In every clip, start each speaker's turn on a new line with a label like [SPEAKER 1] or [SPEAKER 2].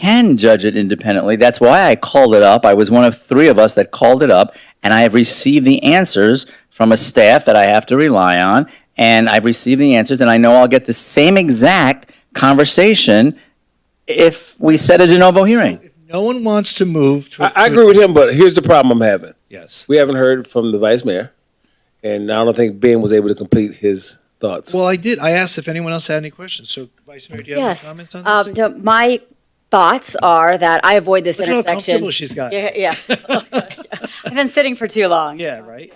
[SPEAKER 1] can judge it independently. That's why I called it up. I was one of three of us that called it up, and I have received the answers from a staff that I have to rely on, and I've received the answers, and I know I'll get the same exact conversation if we set a de novo hearing.
[SPEAKER 2] No one wants to move. to-
[SPEAKER 3] I, I agree with him, but here's the problem I'm having.
[SPEAKER 2] Yes.
[SPEAKER 3] We haven't heard from the vice mayor, and I don't think Ben was able to complete his thoughts.
[SPEAKER 2] Well, I did. I asked if anyone else had any questions. So Vice Mayor, do you have
[SPEAKER 4] Yes.
[SPEAKER 2] any comments on
[SPEAKER 4] Um,
[SPEAKER 2] this?
[SPEAKER 4] no, my thoughts are that I avoid this
[SPEAKER 2] Look how
[SPEAKER 4] intersection.
[SPEAKER 2] comfortable she's got.
[SPEAKER 4] Yeah, yeah. Oh I've been sitting for too long.
[SPEAKER 2] Yeah, right?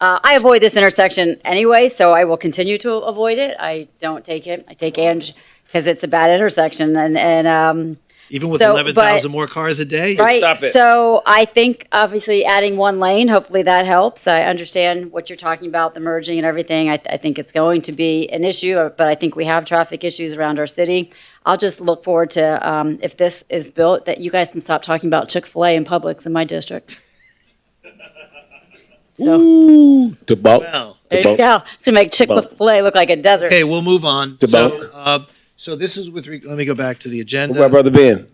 [SPEAKER 4] Uh, I avoid this intersection anyway, so I will continue to avoid it. I don't take it. I take Ange because it's a bad intersection and, and, um,
[SPEAKER 2] Even with
[SPEAKER 4] So, but-
[SPEAKER 2] 11,000 more cars a day?
[SPEAKER 4] right.
[SPEAKER 3] stop it.
[SPEAKER 4] So I think obviously adding one lane, hopefully that helps. I understand what you're talking about, the merging and everything. I, I think it's going to be an issue, uh, but I think we have traffic issues around our city. I'll just look forward to, um, if this is built, that you guys can stop talking about Chick-fil-A and Publix in my district. So,
[SPEAKER 3] To bulk,
[SPEAKER 2] Well,
[SPEAKER 3] to
[SPEAKER 4] there you
[SPEAKER 3] bulk,
[SPEAKER 4] go. It's gonna make Chick-fil-A look like a desert.
[SPEAKER 2] okay, we'll move on.
[SPEAKER 3] The
[SPEAKER 2] So,
[SPEAKER 3] vote.
[SPEAKER 2] uh, So this is with, re- let me go back to the
[SPEAKER 3] What about
[SPEAKER 2] agenda.
[SPEAKER 3] brother Ben?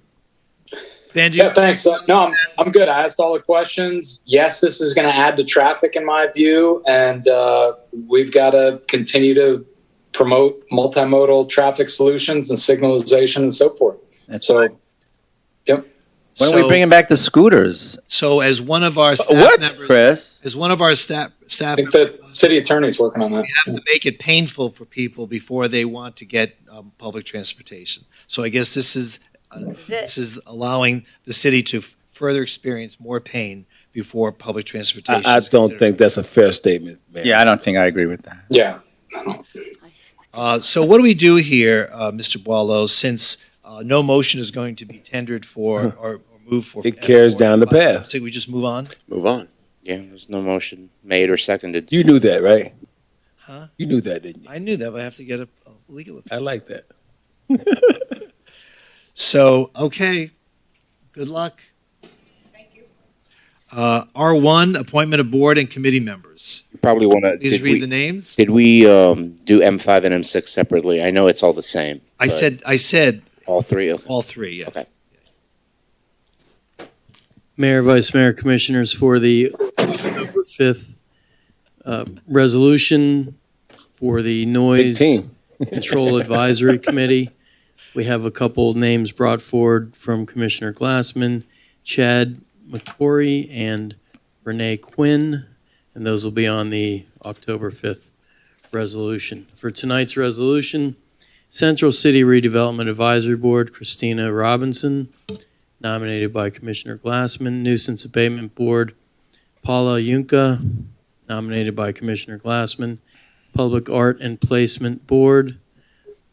[SPEAKER 5] Yeah,
[SPEAKER 2] Benji,
[SPEAKER 5] thanks. Uh, no, I'm, I'm good. I asked all the questions. Yes, this is going to add to traffic, in my view, and uh, we've got to continue to promote multimodal traffic solutions and signalization and so forth.
[SPEAKER 1] That's
[SPEAKER 5] So,
[SPEAKER 1] Why don't we
[SPEAKER 2] So-
[SPEAKER 1] bring back the scooters,
[SPEAKER 2] so as one of our staff
[SPEAKER 3] what?
[SPEAKER 2] members,
[SPEAKER 1] Chris?
[SPEAKER 2] as one of our staff, staff
[SPEAKER 5] I think
[SPEAKER 2] members
[SPEAKER 5] the city attorney's working on that.
[SPEAKER 2] we have to make it painful for people before they want to get um, public transportation. So I guess this is, uh, this is allowing the city to f- further experience more pain before public transportation.
[SPEAKER 3] I, I
[SPEAKER 2] is
[SPEAKER 3] don't
[SPEAKER 2] considered.
[SPEAKER 3] think that's a fair statement, man.
[SPEAKER 1] Yeah, I don't think I agree with that.
[SPEAKER 5] Yeah.
[SPEAKER 2] Uh, So what do we do here, uh, Mr. Boileau, since uh, no motion is going to be tendered for or or moved for?
[SPEAKER 3] Uh-huh. It carries down the path.
[SPEAKER 2] So we just move on?
[SPEAKER 6] Move on. Yeah, there's no motion made or seconded.
[SPEAKER 3] You knew that, right?
[SPEAKER 2] Huh?
[SPEAKER 3] You knew that, didn't you?
[SPEAKER 2] I knew that, but I have to get a a legal opinion.
[SPEAKER 3] I like that.
[SPEAKER 2] So, okay, good luck. Thank you. R1, appointment of board and committee members.
[SPEAKER 6] You probably want to.
[SPEAKER 2] Please read the names.
[SPEAKER 6] Did we um, do M5 and M6 separately? I know it's all the same.
[SPEAKER 2] I
[SPEAKER 6] but
[SPEAKER 2] said, I said
[SPEAKER 6] all three. Okay.
[SPEAKER 2] all three, yeah.
[SPEAKER 6] Okay.
[SPEAKER 7] Mayor, Vice Mayor, Commissioners, for the October 5th uh, resolution for the
[SPEAKER 3] Big
[SPEAKER 7] Noise
[SPEAKER 3] team.
[SPEAKER 7] Control Advisory Committee. We have a couple names brought forward from Commissioner Glassman, Chad McCory, and Renee Quinn, and those will be on the October 5th resolution. For tonight's resolution, Central City Redevelopment Advisory Board, Christina Robinson, nominated by Commissioner Glassman. Nuisance Abatement Board, Paula Yunka, nominated by Commissioner Glassman. Public Art and Placement Board,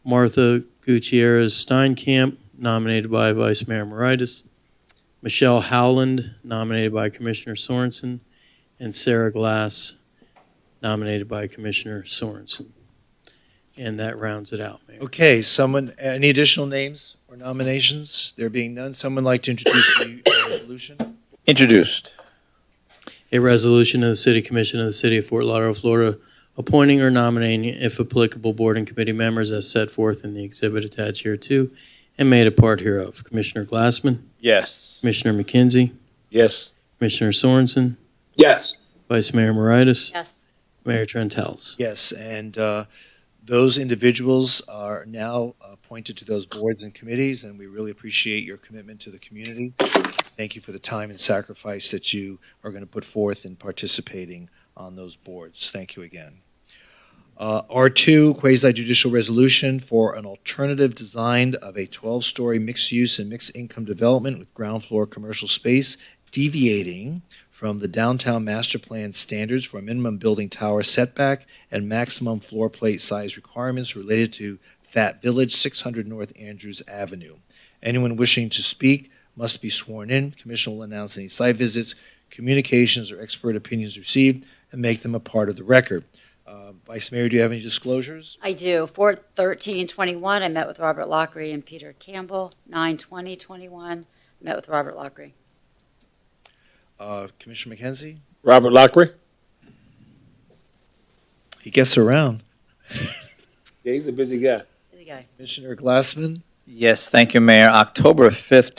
[SPEAKER 7] Martha Gutierrez Steinkamp, nominated by Vice Mayor Moritas. Michelle Howland, nominated by Commissioner Sorensen. And Sarah Glass, nominated by Commissioner Sorensen. And that rounds it out, Mayor.
[SPEAKER 2] Okay, someone, any additional names or nominations? There being none, someone like to introduce the resolution?
[SPEAKER 1] Introduced.
[SPEAKER 7] A resolution of the City Commission of the City of Fort Lauderdale, Florida, appointing or nominating, if applicable, board and committee members as set forth in the exhibit attached here to and made a part hereof. Commissioner Glassman,
[SPEAKER 1] Yes.
[SPEAKER 7] Commissioner McKenzie,
[SPEAKER 3] Yes.
[SPEAKER 7] Commissioner Sorensen,
[SPEAKER 5] Yes.
[SPEAKER 7] Vice Mayor Moritas,
[SPEAKER 4] Yes.
[SPEAKER 7] Mayor Trentalis.
[SPEAKER 2] Yes, and uh, those individuals are now uh, appointed to those boards and committees, and we really appreciate your commitment to the community. Thank you for the time and sacrifice that you are going to put forth in participating on those boards. Thank you again. Uh, R2, quasi judicial resolution for an alternative design of a 12-story mixed-use and mixed-income development with ground floor commercial space deviating from the downtown master plan standards for minimum building tower setback and maximum floor plate size requirements related to Fat Village, 600 North Andrews Avenue. Anyone wishing to speak must be sworn in. Commission will announce any site visits, communications, or expert opinions received and make them a part of the record. Uh, Vice Mayor, do you have any disclosures?
[SPEAKER 4] I do. Four thirteen twenty-one, I met with Robert Lockery and Peter Campbell. Nine twenty twenty-one, met with Robert Lockery.
[SPEAKER 2] Uh, Commissioner McKenzie?
[SPEAKER 3] Robert Lockery?
[SPEAKER 2] He gets around.
[SPEAKER 3] Yeah, he's a busy guy.
[SPEAKER 4] Who's the guy?
[SPEAKER 2] Commissioner Glassman?
[SPEAKER 1] Yes, thank you, Mayor. October 5th,